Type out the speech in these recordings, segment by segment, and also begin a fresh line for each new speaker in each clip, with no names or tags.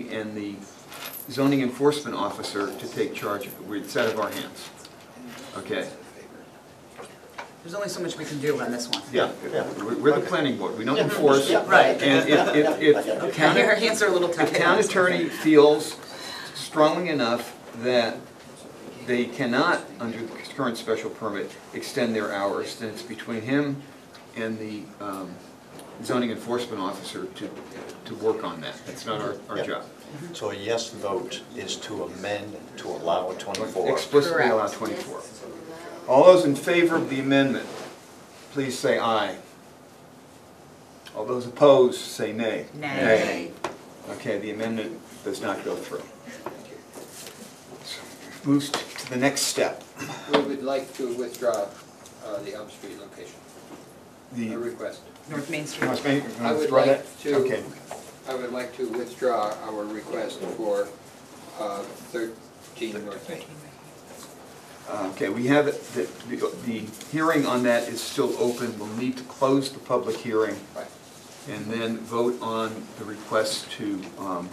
attorney and the zoning enforcement officer to take charge of it. We- It's out of our hands. Okay,
There's only so much we can do on this one.
yeah, we're we're the planning board, we don't enforce.
Yeah, right.
And if, if, if the town,
Your hands are a little
if
tied.
town attorney feels strongly enough that they cannot, under the current special permit, extend their hours, then it's between him and the um, zoning enforcement officer to, to work on that. That's not our, our
Yeah.
job.
So a yes vote is to amend to allow a 24.
Explicitly allow
Correct.
24. All those in favor of the amendment, please say aye. All those opposed, say nay.
Nay.
Okay, the amendment does not go through. So, Moves to the next step.
We would like to withdraw uh, the Elm Street location, a
The,
request.
North Main Street.
Must make-
I would
withdraw that?
like to-
Okay,
I would like to withdraw our request for uh, 13 North Main. um,
uh, okay, we have, it- the, the- the hearing on that is still open. We'll need to close the public hearing
Right.
and then vote on the request to um,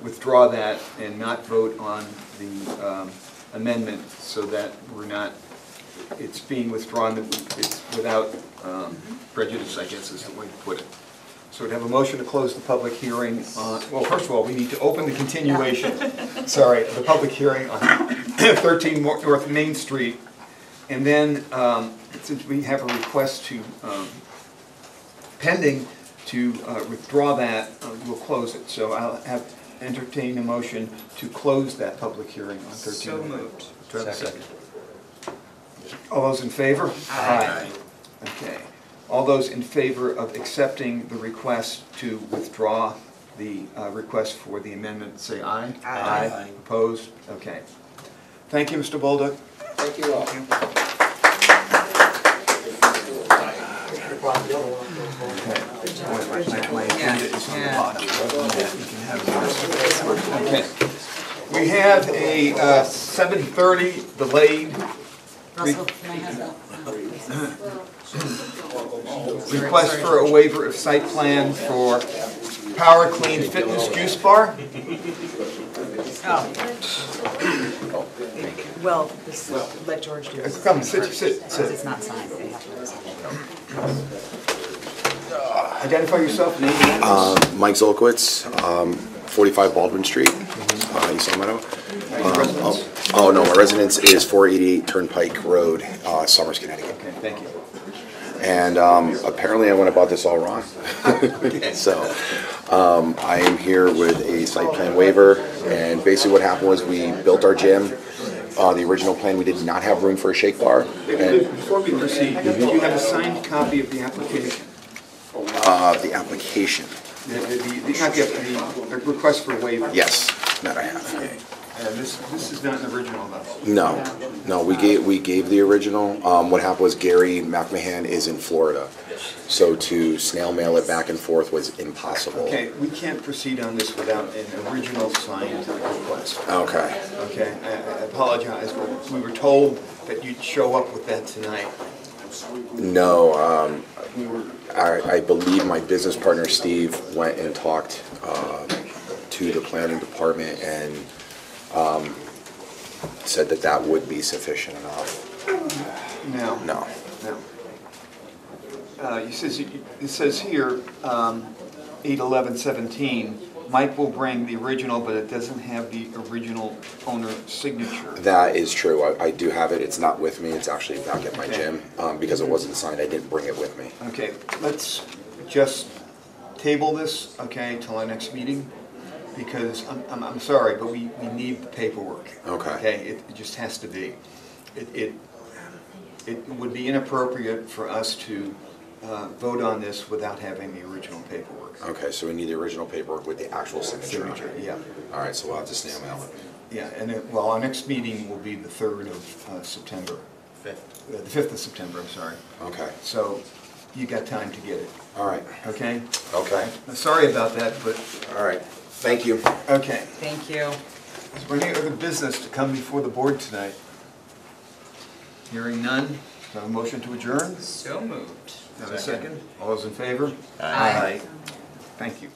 withdraw that and not vote on the um, amendment so that we're not, it's being withdrawn, that we- it's without um, prejudice, I guess is the way to put it. So we'd have a motion to close the public hearing on, well, first of all, we need to open the continuation, sorry, the public hearing on 13 Mo- North Main Street. And then, um, since we have a request to um, pending to uh, withdraw that, uh, we'll close it. So I'll have, entertain a motion to close that public hearing on 13.
So moved.
Do I have a second? All those in favor?
Aye.
Okay. All those in favor of accepting the request to withdraw the uh, request for the amendment, say aye.
Aye.
Opposed? Okay. Thank you, Mr. Bolduc.
Thank you all.
Yeah,
Okay. We have a uh, 7:30 delayed
Russell, can I have that?
Request for a waiver of site plan for Power Clean Fitness Juice Bar?
Oh. Well, this, let George do it.
Come, sit, sit,
Because
sit.
it's not signed, they have to.
Identify yourself, name and address.
Mike Zolkowitz, um, 45 Baldwin Street, uh, East Long Meadow.
Any residents?
Oh, no, my residence is 488 Turnpike Road, uh, Somers, Connecticut.
Okay, thank you.
And um, apparently I went about this all wrong. So um, I am here with a site plan waiver, and basically what happened was we built our gym. Uh, The original plan, we did not have room for a shake bar. and-
Before we proceed, do you have a signed copy of the application?
Uh, The application,
The, the- the- not the, the- the request for waiver?
yes, that I have.
Uh, This, this is not an original, though.
No, no, we gave, we gave the original. Um, what happened was Gary McMahon is in Florida. So to snail mail it back and forth was impossible.
Okay, we can't proceed on this without an original signed request.
Okay.
Okay, I I apologize, but we were told that you'd show up with that tonight.
No, um,
We were,
I, I believe my business partner Steve went and talked, uh, to the planning department and, um, said that that would be sufficient enough.
no.
No.
No. Uh, He says, it says here, um, 8/11/17, Mike will bring the original, but it doesn't have the original owner signature.
That is true. I, I do have it. It's not with me. It's actually back at my gym, um, because it wasn't signed. I didn't bring it with me.
Okay, let's just table this, okay, till our next meeting, because I'm, I'm, I'm sorry, but we, we need the paperwork.
Okay.
Okay, it, it just has to be. It, it, it would be inappropriate for us to, uh, vote on this without having the original paperwork.
Okay, so we need the original paperwork with the actual signature on
Signature,
it?
yeah.
All right, so we'll have to snail mail it.
Yeah, and it, well, our next meeting will be the third of, uh, September,
Fifth.
Uh, the fifth of September, I'm sorry.
Okay,
So you got time to get it,
all right,
okay?
okay,
Sorry about that, but,
all right. Thank you.
okay.
Thank you.
Is there any other business to come before the board tonight? Hearing none, do I have a motion to adjourn?
So moved.
Have a second? All those in favor?
Aye.
Thank you.